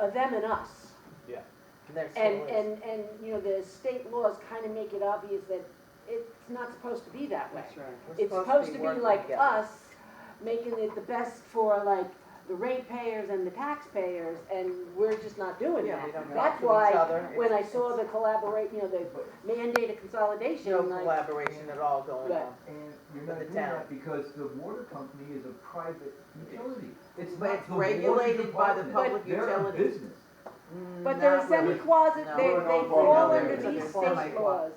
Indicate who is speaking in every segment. Speaker 1: uh, them and us.
Speaker 2: There still
Speaker 1: And,
Speaker 2: is.
Speaker 1: and, and, you know, the state laws kind of make it obvious that it's not supposed to be that way.
Speaker 2: That's right. We're
Speaker 1: It's supposed to be
Speaker 2: working
Speaker 1: like
Speaker 2: together.
Speaker 1: us, making it the best for like the ratepayers and the taxpayers, and we're just not doing
Speaker 2: Yeah, we
Speaker 1: that.
Speaker 2: don't talk
Speaker 1: That's
Speaker 2: to each
Speaker 1: why,
Speaker 2: other.
Speaker 1: when I
Speaker 2: It's-
Speaker 1: saw the collaborate, you know, the mandated
Speaker 2: it's
Speaker 1: consolidation,
Speaker 2: No
Speaker 1: like,
Speaker 2: collaboration at all going
Speaker 1: Right.
Speaker 2: on.
Speaker 3: And you're
Speaker 2: For
Speaker 3: not
Speaker 2: the
Speaker 3: doing
Speaker 2: town.
Speaker 3: that because the water company is a private utility. It's
Speaker 2: But
Speaker 3: not
Speaker 2: it's
Speaker 3: the water
Speaker 2: regulated by the
Speaker 3: department.
Speaker 2: public
Speaker 3: They're a
Speaker 2: utility.
Speaker 3: business.
Speaker 1: but they're
Speaker 2: Not really.
Speaker 1: semi-closet,
Speaker 2: No.
Speaker 1: they,
Speaker 2: We're
Speaker 1: they
Speaker 4: not
Speaker 1: fall
Speaker 4: going
Speaker 1: under
Speaker 4: there.
Speaker 1: these
Speaker 2: They're
Speaker 1: state
Speaker 2: semi-closet.
Speaker 1: laws.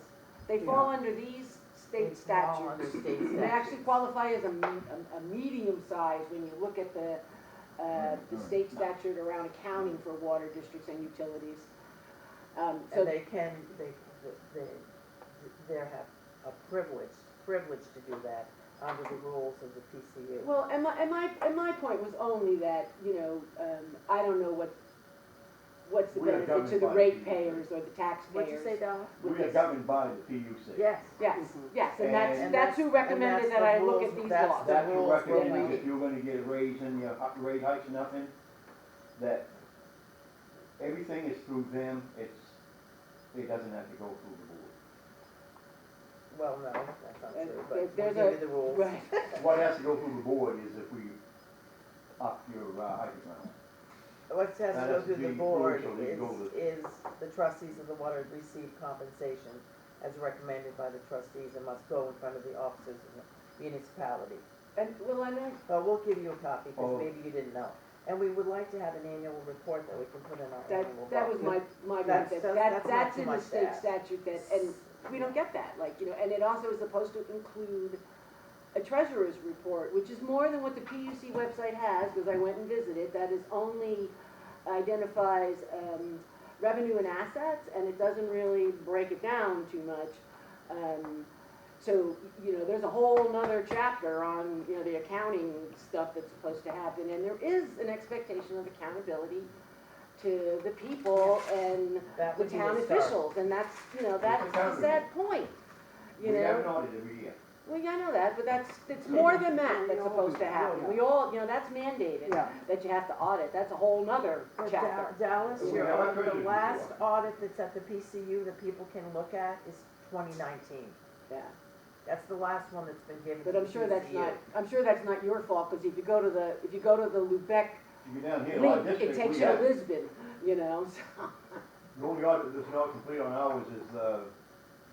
Speaker 1: They
Speaker 3: Yeah.
Speaker 1: fall under these state
Speaker 2: It's all
Speaker 1: statutes.
Speaker 2: under state
Speaker 1: They actually
Speaker 2: statutes.
Speaker 1: qualify as a, me- a, a medium size when you look at the, uh, the state statute around accounting for water districts and utilities. Um, so,
Speaker 2: And they can, they, they, they have a privilege, privilege to do that under the rules of the PCU.
Speaker 1: well, and my, and my, and my point was only that, you know, um, I don't know what, what's the
Speaker 4: We are
Speaker 1: benefit to
Speaker 4: governed
Speaker 1: the
Speaker 4: by-
Speaker 1: ratepayers or the taxpayers.
Speaker 2: What'd you say, Donna?
Speaker 1: with
Speaker 4: We are
Speaker 1: this.
Speaker 4: governed by the PUC.
Speaker 2: Yes.
Speaker 1: Yes,
Speaker 2: Mhm.
Speaker 1: yes, and that's,
Speaker 4: And
Speaker 1: that's who
Speaker 2: that's-
Speaker 1: recommended
Speaker 2: and
Speaker 1: that
Speaker 2: that's
Speaker 1: I
Speaker 2: the
Speaker 1: look
Speaker 2: rules-
Speaker 1: at these
Speaker 2: that's
Speaker 1: laws.
Speaker 4: That's
Speaker 2: The
Speaker 4: who
Speaker 2: rules
Speaker 4: recommends
Speaker 1: we-
Speaker 4: if you're gonna get a raise in your hi- rate hikes and nothing, that everything is through them, it's, it doesn't have to go through the board.
Speaker 2: Well, no, that's not
Speaker 1: Uh,
Speaker 2: true,
Speaker 1: there-
Speaker 2: but we'll
Speaker 1: there's
Speaker 2: give
Speaker 1: a-
Speaker 2: you the rules.
Speaker 1: Right,
Speaker 4: What has to go through the board is if we up your uh, hike amount.
Speaker 2: What has to
Speaker 4: That
Speaker 2: go
Speaker 4: has
Speaker 2: through
Speaker 4: to
Speaker 2: the
Speaker 4: be
Speaker 2: board
Speaker 4: crucial, you
Speaker 2: is,
Speaker 4: go with-
Speaker 2: is the trustees of the water receive compensation as recommended by the trustees and must go in front of the officers of the municipality.
Speaker 1: and, well, I know,
Speaker 2: But we'll give you a copy,
Speaker 4: Oh.
Speaker 2: because maybe you didn't know. And we would like to have an annual report that we can put in our
Speaker 1: That,
Speaker 2: annual.
Speaker 1: that was my, my,
Speaker 2: That's-
Speaker 1: that,
Speaker 2: that's-
Speaker 1: that-
Speaker 2: that's not
Speaker 1: that's
Speaker 2: too
Speaker 1: in the
Speaker 2: much to
Speaker 1: state
Speaker 2: ask.
Speaker 1: statute that, and we don't get that, like, you know, and it also is supposed to include a treasurer's report, which is more than what the PUC website has, because I went and visited, that is only identifies, um, revenue and assets, and it doesn't really break it down too much. Um, so, you know, there's a whole nother chapter on, you know, the accounting stuff that's supposed to happen, and there is an expectation of accountability to the people and
Speaker 2: That
Speaker 1: the
Speaker 2: would be a
Speaker 1: town
Speaker 2: start.
Speaker 1: officials, and that's, you know, that's a sad point, you
Speaker 4: We have an
Speaker 1: know?
Speaker 4: audit every year.
Speaker 1: Well, yeah, I know that, but that's, it's more than that that's supposed to happen, we all, you know, that's mandated,
Speaker 2: Yeah.
Speaker 1: that you have to audit, that's a whole nother
Speaker 2: Well, Dal-
Speaker 1: chapter.
Speaker 2: Dallas,
Speaker 4: We
Speaker 2: you're
Speaker 4: have a
Speaker 2: on the
Speaker 4: treasurer's
Speaker 2: last
Speaker 4: report.
Speaker 2: audit that's at the PCU that people can look at is twenty nineteen.
Speaker 1: Yeah,
Speaker 2: That's the last one that's been given to
Speaker 1: but
Speaker 2: the
Speaker 1: I'm sure that's
Speaker 2: PCU.
Speaker 1: not, I'm sure that's not your fault, because if you go to the, if you go to the Lubec
Speaker 4: You go down here, our
Speaker 1: link, it
Speaker 4: district,
Speaker 1: takes
Speaker 4: we
Speaker 1: you to
Speaker 4: have,
Speaker 1: Lisbon, you know, so.
Speaker 4: the only audit that's not complete on ours is, uh,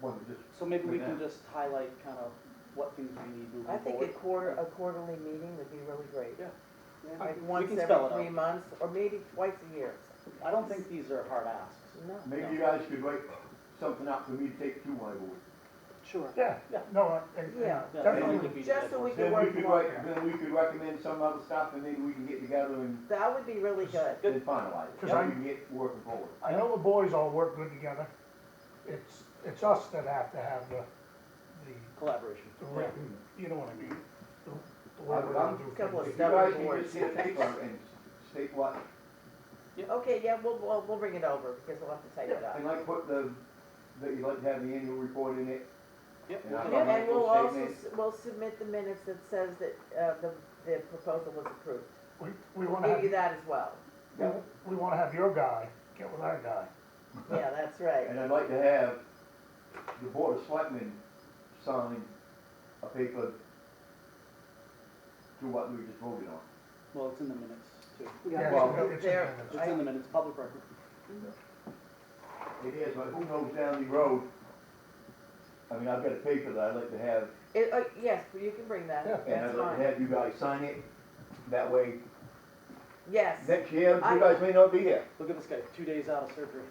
Speaker 4: one that just
Speaker 5: So maybe we
Speaker 4: Yeah.
Speaker 5: can just highlight kind of what things we need moving
Speaker 2: I
Speaker 5: forward.
Speaker 2: think a quarter, a quarterly meeting would be really great.
Speaker 5: Yeah.
Speaker 1: Yeah.
Speaker 2: Like
Speaker 5: We
Speaker 2: once
Speaker 5: can spell
Speaker 2: every
Speaker 5: it out.
Speaker 2: three months, or maybe twice a year.
Speaker 5: I don't think these are hard asks.
Speaker 2: No.
Speaker 4: Maybe you guys could write something up for me to take to my board.
Speaker 5: Sure.
Speaker 6: Yeah, no, and, and
Speaker 2: Yeah.
Speaker 5: Yeah,
Speaker 6: definitely.
Speaker 5: we could be
Speaker 2: Just so
Speaker 5: good.
Speaker 2: we can
Speaker 4: Then we
Speaker 2: work
Speaker 4: could
Speaker 2: more.
Speaker 4: write, then we could recommend some other stuff and maybe we can get together and
Speaker 2: That would be really good.
Speaker 4: then finalize it.
Speaker 6: Cause
Speaker 4: Then
Speaker 6: I-
Speaker 4: we can get working forward.
Speaker 6: I know the boys all work good together. It's, it's us that have to have the, the,
Speaker 5: Collaboration.
Speaker 6: the written, you know what I mean? The- The way
Speaker 4: I'm-
Speaker 6: we're
Speaker 4: I'm-
Speaker 6: gonna do
Speaker 2: Couple of
Speaker 4: If
Speaker 6: things.
Speaker 4: you
Speaker 2: That
Speaker 4: guys
Speaker 2: would
Speaker 4: can just get paper and state what,
Speaker 2: Okay, yeah, we'll, we'll, we'll bring it over because we'll have to type it up.
Speaker 4: and like put the, that you'd like to have the annual report in it.
Speaker 5: Yep.
Speaker 4: And I-
Speaker 5: we'll
Speaker 2: Yeah,
Speaker 5: do that.
Speaker 2: And we'll
Speaker 4: financial
Speaker 2: also,
Speaker 4: statement.
Speaker 2: s- we'll submit the minutes that says that, uh, the, the proposal was approved.
Speaker 6: We, we wanna
Speaker 2: Maybe
Speaker 6: have,
Speaker 2: that as well.
Speaker 6: we- we wanna have your guy get with our guy.
Speaker 2: Yeah, that's right.
Speaker 4: And I'd like to have the board of selectmen sign a paper to what we just voted on.
Speaker 5: Well, it's in the minutes too.
Speaker 6: Yeah,
Speaker 4: Well,
Speaker 6: it's- it's in
Speaker 2: there-
Speaker 6: there.
Speaker 5: It's in the minutes, public record.
Speaker 4: It is, but who knows down the road? I mean, I've got a paper that I'd like to have
Speaker 2: It, uh, yes, you can bring that,
Speaker 6: Yeah.
Speaker 4: And I'd
Speaker 2: that's
Speaker 4: like to
Speaker 2: fine.
Speaker 4: have you guys sign it, that way,
Speaker 2: Yes,
Speaker 4: next year, you
Speaker 2: I-
Speaker 4: guys may not be here.
Speaker 5: Look at this guy, two days out of surgery.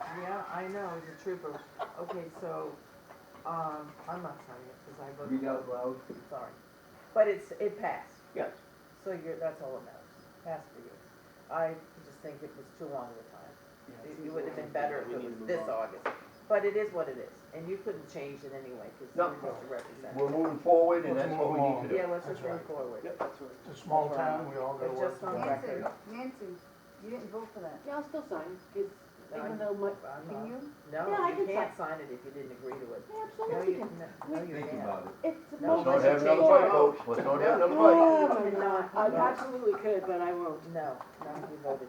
Speaker 2: yeah, I know, he's a trooper. Okay, so, um, I'm not signing it because I voted.
Speaker 4: Read out loud.
Speaker 2: Sorry. But it's, it passed,
Speaker 4: Yes.
Speaker 2: so you're, that's all that matters, passed for you. I just think it was too long of a time.
Speaker 5: Yeah,
Speaker 2: It-
Speaker 5: it's
Speaker 2: It
Speaker 5: easy.
Speaker 2: would have been better if
Speaker 5: We
Speaker 2: it
Speaker 5: need to
Speaker 2: was
Speaker 5: move
Speaker 2: this
Speaker 5: on.
Speaker 2: August, but it is what it is, and you couldn't change it anyway, because
Speaker 4: No.
Speaker 2: you're just a representative.
Speaker 4: We're moving forward, and
Speaker 6: Let's
Speaker 4: that's what
Speaker 6: move
Speaker 4: we need
Speaker 6: on.
Speaker 4: to do.
Speaker 2: Yeah, let's just
Speaker 6: That's right.
Speaker 2: move forward.
Speaker 5: Yep, that's right.
Speaker 6: It's a small
Speaker 5: That's right.
Speaker 6: town, we all gotta
Speaker 2: But
Speaker 6: work
Speaker 2: just on
Speaker 6: together.
Speaker 2: record.
Speaker 7: Nancy, Nancy, you didn't vote for that,
Speaker 1: Yeah, I'll still sign, because even
Speaker 2: I'm-
Speaker 1: though my,
Speaker 2: I'm
Speaker 7: can
Speaker 2: not-
Speaker 7: you?
Speaker 1: Yeah, I
Speaker 2: No, you
Speaker 1: can
Speaker 2: can't sign it if you didn't agree to it.
Speaker 1: yeah,
Speaker 2: No,
Speaker 1: absolutely,
Speaker 2: you,
Speaker 1: can-
Speaker 2: no, no, you
Speaker 4: Think
Speaker 2: can't.
Speaker 4: about it.
Speaker 1: it's the
Speaker 2: No,
Speaker 1: most.
Speaker 4: Let's not have another
Speaker 2: Well,
Speaker 4: fight, folks, let's not have another fight.
Speaker 1: Oh, my God, I absolutely could, but I won't.
Speaker 2: No, no, you voted